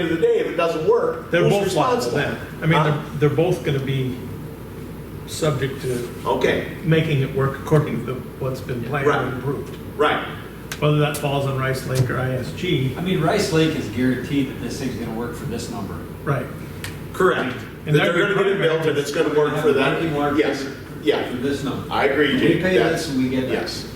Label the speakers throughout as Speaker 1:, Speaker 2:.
Speaker 1: end of the day, if it doesn't work,
Speaker 2: They're
Speaker 1: who's
Speaker 2: both liable
Speaker 1: responsible?
Speaker 2: then. I mean,
Speaker 1: Huh?
Speaker 2: they're, they're both gonna be subject to
Speaker 1: Okay,
Speaker 2: making it work according to what's been planned
Speaker 1: Right.
Speaker 2: and approved.
Speaker 1: right.
Speaker 2: Whether that falls on Rice Lake or ISG,
Speaker 3: I mean, Rice Lake is guaranteed that this thing's gonna work for this number.
Speaker 2: right.
Speaker 1: Correct. That
Speaker 2: And
Speaker 1: they're
Speaker 2: that'd be
Speaker 1: gonna get it
Speaker 2: primary.
Speaker 1: built and it's gonna work for
Speaker 3: Working
Speaker 1: that.
Speaker 3: market
Speaker 1: Yes,
Speaker 3: For
Speaker 1: yeah.
Speaker 3: this number.
Speaker 1: I agree, Jake.
Speaker 3: We pay
Speaker 1: That's-
Speaker 3: this and we get that.
Speaker 1: Yes.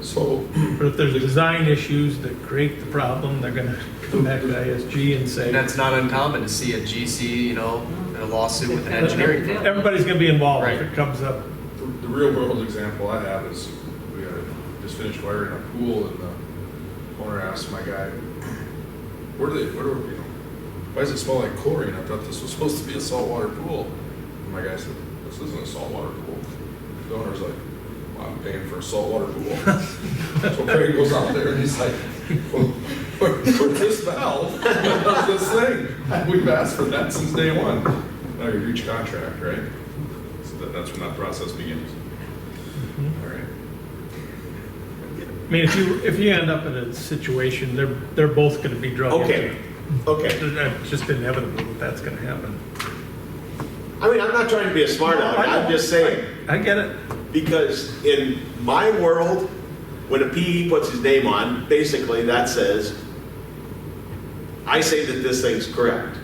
Speaker 1: So,
Speaker 2: But if there's design issues that create the problem, they're gonna come back to ISG and say.
Speaker 4: And that's not uncommon to see a GC, you know, in a lawsuit with an engineering firm.
Speaker 2: Everybody's gonna be involved if
Speaker 4: Right.
Speaker 2: it comes up.
Speaker 5: The the real world example I have is we had just finished wiring a pool and the owner asked my guy, where do they, where do, you know, why does it smell like chlorine? I thought this was supposed to be a saltwater pool. And my guy said, this isn't a saltwater pool. The owner's like, well, I'm paying for a saltwater pool. So Craig goes out there and he's like, well, where- where's this valve? Where's this thing? We've asked for that since day one. Now you reach contract, right? So that- that's when that process begins.
Speaker 3: Mm-hmm.
Speaker 5: All right.
Speaker 2: I mean, if you, if you end up in a situation, they're, they're both gonna be drug into
Speaker 1: okay,
Speaker 2: it.
Speaker 1: okay.
Speaker 2: It's just inevitable that that's gonna happen.
Speaker 1: I mean, I'm not trying to be a smart aleck, I'm just saying.
Speaker 2: I get it.
Speaker 1: Because in my world, when a PE puts his name on, basically that says, I say that this thing's correct.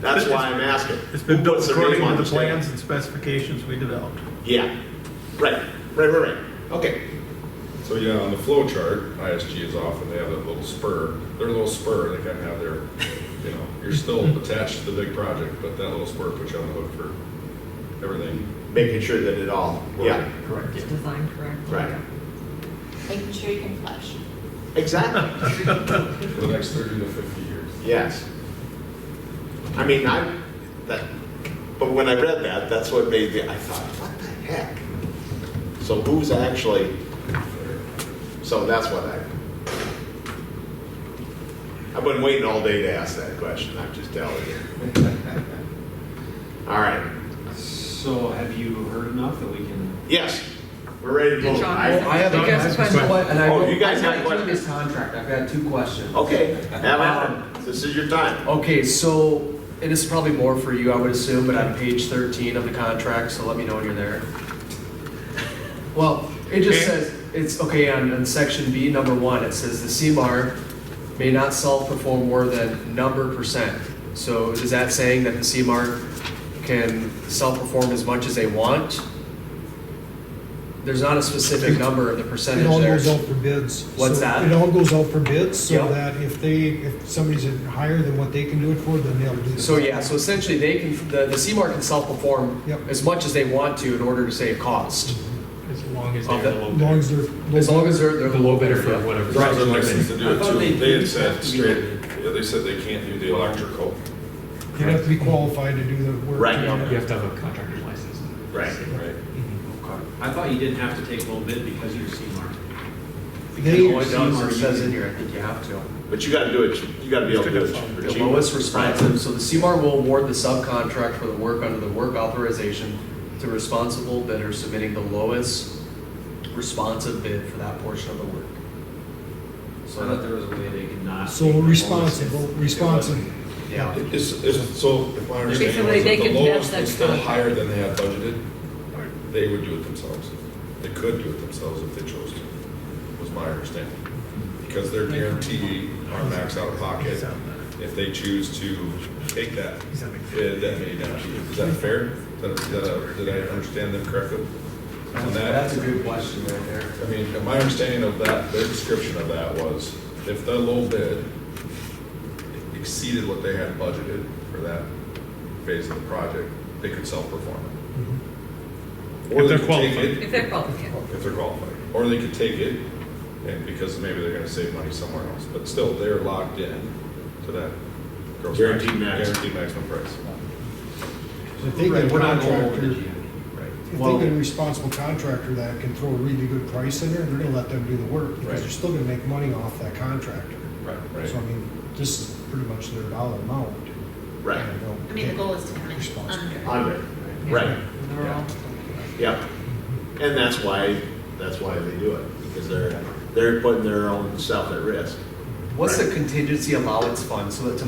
Speaker 1: That's why I'm asking.
Speaker 2: It's been
Speaker 1: Who puts
Speaker 2: built
Speaker 1: their
Speaker 2: according
Speaker 1: name on
Speaker 2: to the
Speaker 1: stamp?
Speaker 2: plans and specifications we developed.
Speaker 1: Yeah, right, right, right, right, okay.
Speaker 5: So yeah, on the flow chart, ISG is off and they have a little spur, their little spur, they kind of have their, you know, you're still attached to the big project, but that little spur puts you on the hook for everything.
Speaker 1: Making sure that it all, yeah,
Speaker 3: Correct.
Speaker 6: It's designed correctly.
Speaker 1: right,
Speaker 7: Making sure you can flush.
Speaker 1: exactly.
Speaker 5: For the next thirty to fifty years.
Speaker 1: Yes. I mean, I, that, but when I read that, that's what made me, I thought, what the heck? So who's actually, so that's what I, I've been waiting all day to ask that question, I'm just telling you. All right,
Speaker 3: So have you heard enough that we can?
Speaker 1: yes, we're ready to
Speaker 6: Did
Speaker 1: vote.
Speaker 6: John-
Speaker 1: I-
Speaker 4: I have a
Speaker 6: Did you ask a
Speaker 2: question.
Speaker 6: question?
Speaker 4: And I
Speaker 1: Oh,
Speaker 4: wrote-
Speaker 1: you guys
Speaker 4: I
Speaker 1: got
Speaker 4: typed in
Speaker 1: questions?
Speaker 4: this contract, I've got two questions.
Speaker 1: Okay, have
Speaker 4: Um,
Speaker 1: at it, this is your time.
Speaker 4: Okay, so, and this is probably more for you, I would assume, but on page thirteen of the contract, so let me know when you're there. Well, it just
Speaker 2: Okay.
Speaker 4: says, it's, okay, on, on section B, number one, it says the CMAR may not self-perform more than number percent. So is that saying that the CMAR can self-perform as much as they want? There's not a specific number of the percentage
Speaker 8: It all goes
Speaker 4: there.
Speaker 8: out for bids. So
Speaker 4: What's that?
Speaker 8: It all goes out for bids, so
Speaker 4: Yep.
Speaker 8: that if they, if somebody's higher than what they can do it for, then they'll do it.
Speaker 4: So yeah, so essentially they can, the, the CMAR can self-perform
Speaker 8: Yep.
Speaker 4: as much as they want to in order to save cost.
Speaker 9: As long as
Speaker 4: Of
Speaker 9: they're the
Speaker 4: the-
Speaker 8: As long
Speaker 9: low
Speaker 8: as they're.
Speaker 4: As long as they're, they're
Speaker 9: the low bidder for whatever.
Speaker 5: There's other license to do
Speaker 3: I
Speaker 5: it
Speaker 3: thought
Speaker 5: too.
Speaker 3: they-
Speaker 5: They had said
Speaker 3: they-
Speaker 5: straight, yeah, they said they can't do the electrical.
Speaker 8: You have to be qualified to do the work.
Speaker 1: Right.
Speaker 9: You have to have a contractor's license.
Speaker 1: Right.
Speaker 5: Right.
Speaker 3: I thought you didn't have to take a little bit because you're C-Mart.
Speaker 4: The
Speaker 8: They,
Speaker 4: only
Speaker 3: CMAR
Speaker 4: does, it
Speaker 3: you
Speaker 4: says
Speaker 3: can-
Speaker 4: in here, I think you have to.
Speaker 1: But you gotta do it, you gotta be able to do
Speaker 4: The
Speaker 1: it.
Speaker 4: lowest responsive, so the CMAR will award the subcontract for the work under the work authorization to responsible bidder submitting the lowest responsive bid for that portion of the work.
Speaker 3: So I thought there was a way they could not.
Speaker 8: so responsible, responsible.
Speaker 4: Yeah,
Speaker 5: Is, is, so if I
Speaker 6: Okay, so
Speaker 5: understand,
Speaker 6: they-
Speaker 5: was
Speaker 6: they
Speaker 5: that the
Speaker 6: can
Speaker 5: lowest
Speaker 6: match
Speaker 5: was
Speaker 6: that
Speaker 5: still
Speaker 6: contract.
Speaker 5: higher than they had budgeted, they would do it themselves. They could do it themselves if they chose to, was my understanding. Because they're guaranteed our max out of pocket. If they choose to take that, eh, that may not be, is that fair? Is that- is that a- Did I understand them correctly? On that?
Speaker 4: that's a good question right there.
Speaker 5: I mean, my understanding of that, their description of that was, if the low bid exceeded what they had budgeted for that phase of the project, they could self-perform it.
Speaker 2: Mm-hmm. If
Speaker 5: Or they
Speaker 2: they're
Speaker 5: could take
Speaker 2: qualified.
Speaker 6: If they're qualified.
Speaker 5: it- If they're qualified, or they could take it, and because maybe they're gonna save money somewhere else, but still, they're locked in to that. gross
Speaker 1: Guaranteed
Speaker 5: maximum-
Speaker 1: max.
Speaker 5: Guaranteed maximum price.
Speaker 8: If they get a
Speaker 3: Right, we're not going over
Speaker 8: contractor,
Speaker 3: the GMP. Right.
Speaker 8: if they
Speaker 4: Well-
Speaker 8: get a responsible contractor that can throw a really good price in there, they're gonna let them do the work,
Speaker 5: Right.
Speaker 8: because they're still gonna make money off that contractor.
Speaker 5: Right.
Speaker 8: So I
Speaker 5: Right.
Speaker 8: mean, this is pretty much their dollar amount.
Speaker 1: Right,
Speaker 8: You know,
Speaker 7: I mean, the
Speaker 8: okay.
Speaker 7: goal is to come in
Speaker 8: Responsible.
Speaker 7: under.
Speaker 1: under, right.
Speaker 6: Um, They're all-
Speaker 1: Yep. And that's why, that's why they do it, because they're, they're putting their own self at risk.
Speaker 4: What's the contingency allowance fund, so that tomorrow